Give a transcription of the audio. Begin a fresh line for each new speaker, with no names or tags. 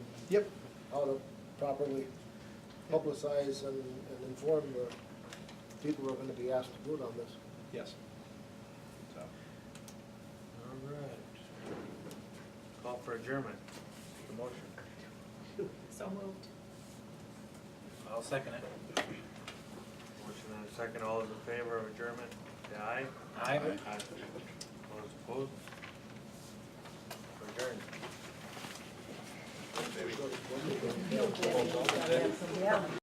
Yep, how to properly publicize and, and inform the people who are gonna be asked to vote on this.
Yes. So,
All right. Call for adjournment. The motion.
So moved.
I'll second it. Motion and a second. All those in favor of adjournment, say aye.
Aye. Aye.
All those opposed? We're Adjourned.
Sort of, what do you think?
Yeah.